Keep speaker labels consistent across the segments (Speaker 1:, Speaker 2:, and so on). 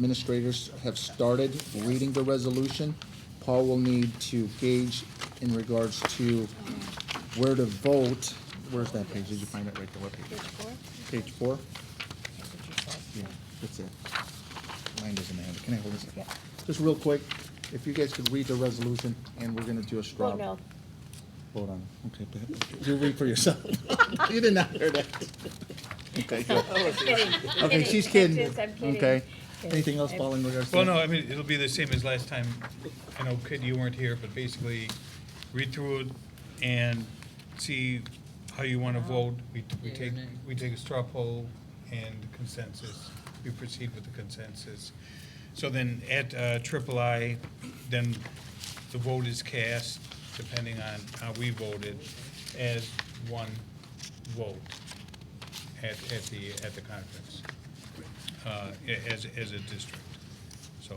Speaker 1: administrators have started reading the resolution. Paul will need to gauge in regards to where to vote. Where's that page? Did you find it right there? What page? Page four? Yeah, that's it. Mine doesn't have it. Can I hold this?
Speaker 2: Yeah.
Speaker 1: Just real quick, if you guys could read the resolution, and we're gonna do a straw.
Speaker 2: Oh, no.
Speaker 1: Hold on. Okay, but you read for yourself. You did not hear that. Oh, Okay, good.
Speaker 2: I'm kidding.
Speaker 1: Okay, she's kidding.
Speaker 2: I'm just- I'm kidding.
Speaker 1: Okay.
Speaker 2: Kidding.
Speaker 1: Anything else, Paul, in regards to?
Speaker 3: Well, no,
Speaker 1: that?
Speaker 3: I mean, it'll be the same as last time. I know, Kid, you weren't here, but basically, read through it and see how you want to vote. We, we
Speaker 4: Yeah,
Speaker 3: take,
Speaker 4: nay.
Speaker 3: we take a straw poll and consensus. We proceed with the consensus. So then at uh, triple I, then the vote is cast, depending on how we voted, as one vote at, at the, at the conference, uh, a- as, as a district. So,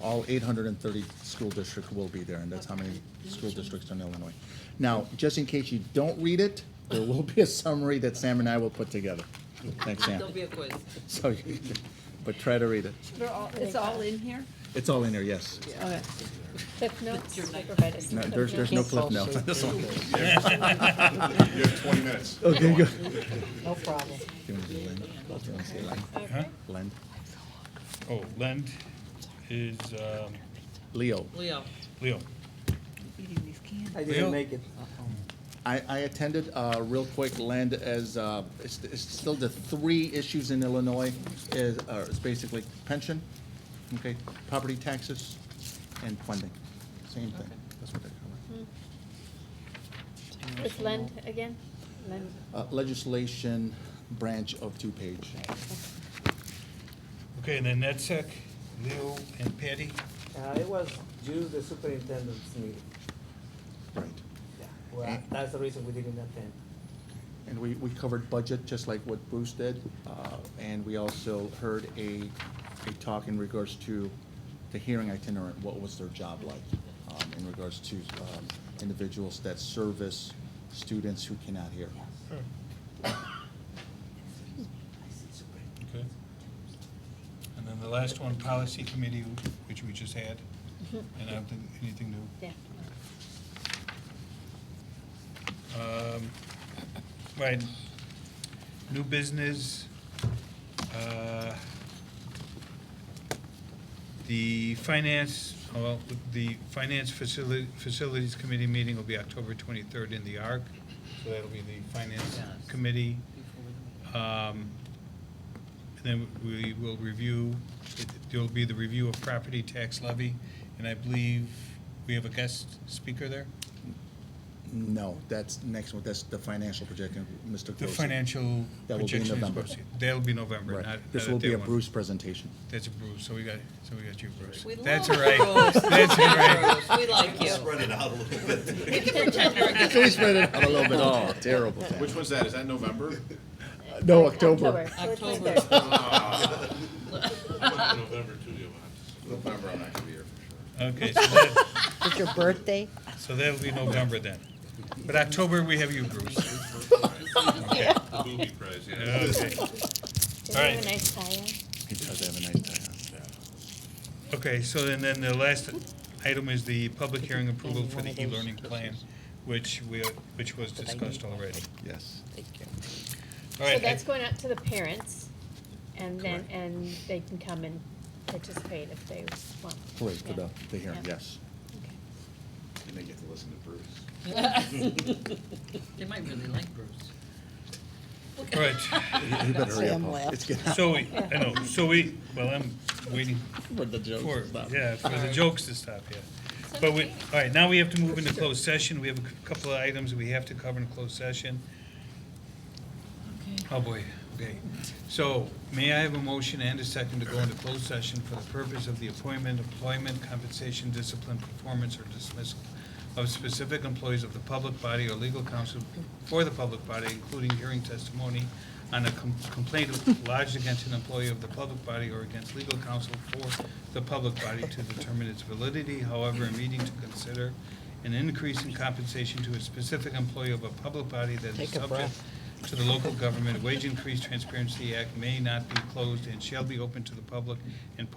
Speaker 1: All eight hundred and thirty school districts will be there, and that's how many school districts are in Illinois. Now, just in case you don't read it, there will be a summary that Sam and I will put together. Thanks, Sam.
Speaker 4: There'll be a quiz.
Speaker 1: So, you- but try to read it.
Speaker 5: They're all, it's all in here?
Speaker 1: It's all in there, yes.
Speaker 5: Okay.
Speaker 2: Cliff notes
Speaker 4: Your
Speaker 2: were
Speaker 4: night.
Speaker 2: provided.
Speaker 1: No, there's, there's no cliff notes on this one.
Speaker 6: You have 20 minutes.
Speaker 1: Okay, good.
Speaker 5: No problem.
Speaker 1: Do you want to do Lend? Do you want to say Lend?
Speaker 3: huh?
Speaker 1: Lend?
Speaker 3: Oh, Lend is, um,
Speaker 1: Leo.
Speaker 4: Leo,
Speaker 3: Leo.
Speaker 7: I
Speaker 3: Leo?
Speaker 7: didn't make it.
Speaker 1: I, I attended, uh, real quick, Land as, uh, it's, it's still the three issues in Illinois is, uh, is basically pension, okay, property taxes, and funding. Same thing. That's what they're covering.
Speaker 2: It's Lend again? Lend.
Speaker 1: Uh, legislation branch of two-page.
Speaker 3: Okay, and then NetSec, Leo and Patty.
Speaker 7: Uh, it was due to the superintendent's meeting.
Speaker 1: Right.
Speaker 7: Yeah, Well, that's the reason we didn't attend.
Speaker 1: And we, we covered budget, just like what Bruce did, uh, and we also heard a, a talk in regards to the hearing itinerant, what was their job like, um, in regards to, um, individuals that service students who cannot hear.
Speaker 3: Okay. And then the last one, Policy Committee, which we just had, and I don't think anything new.
Speaker 2: Yeah.
Speaker 3: Um, Right, new business, uh, the finance, well, the Finance Facili- Facilities Committee meeting will be October 23rd in the ARC, so that'll be the Finance
Speaker 4: Yes.
Speaker 3: Committee.
Speaker 4: before we-
Speaker 3: Um, And then we will review, there'll be the review of property tax levy, and I believe we have a guest speaker there?
Speaker 1: No, that's next one, that's the financial projection, Mr.
Speaker 3: The
Speaker 1: Gross.
Speaker 3: financial
Speaker 1: That will be in
Speaker 3: projection is
Speaker 1: November.
Speaker 3: posted. That'll be November, not,
Speaker 1: Right,
Speaker 3: not
Speaker 1: this
Speaker 3: at
Speaker 1: will be
Speaker 3: that
Speaker 1: a
Speaker 3: one.
Speaker 1: Bruce presentation.
Speaker 3: That's a Bruce, so we got, so we got you, Bruce.
Speaker 4: We
Speaker 3: That's all
Speaker 4: love
Speaker 3: right.
Speaker 4: Bruce.
Speaker 3: That's all right.
Speaker 4: Bruce, We like you.
Speaker 6: Spread it out a little bit.
Speaker 4: We can pretend we're good.
Speaker 1: We spread it out a little bit, oh, terrible.
Speaker 6: Which one's that? Is that November?
Speaker 1: No,
Speaker 2: October.
Speaker 1: Oh, October.
Speaker 2: So it's right
Speaker 4: October.
Speaker 2: there.
Speaker 6: November, too, November, I'm not gonna be here for sure.
Speaker 3: Okay, so that,
Speaker 5: It's your birthday?
Speaker 3: so that'll be November then. But October, we have you, Bruce. Okay. Okay.
Speaker 2: Did we have
Speaker 3: Alright.
Speaker 2: a nice tie-in?
Speaker 1: He does have a nice time.
Speaker 3: Okay, so then, then the last item is the public hearing approval for the e-learning plan, which we, which was discussed already.
Speaker 1: Yes.
Speaker 3: All
Speaker 2: So
Speaker 3: right, I-
Speaker 2: that's going out to the parents, and then,
Speaker 3: Correct.
Speaker 2: and they can come and participate if they want.
Speaker 1: Great, for the, the hearing,
Speaker 2: Yeah.
Speaker 1: yes.
Speaker 2: Okay.
Speaker 6: And they get to listen to Bruce.
Speaker 4: They might really like Bruce.
Speaker 3: all right.
Speaker 1: You better hurry up, Paul. It's getting
Speaker 3: So we, I know, so we, well, I'm waiting
Speaker 1: for the joke.
Speaker 3: for, yeah, for the jokes to stop, yeah. But we, all right, now we have to move into closed session. We have a c- couple of items we have to cover in closed session. Oh, boy, okay. So may I have a motion and a second to go into closed session for the purpose of the appointment, employment, compensation, discipline, performance, or dismissal of specific employees of the public body or legal counsel for the public body, including hearing testimony on a com- complaint lodged against an employee of the public body or against legal counsel for the public body to determine its validity. However, a meeting to consider an increase in compensation to a specific employee of a public body that is
Speaker 5: Take a
Speaker 3: subject
Speaker 5: breath.
Speaker 3: to the Local Government Wage Increase Transparency Act may not be closed and shall be open to the public and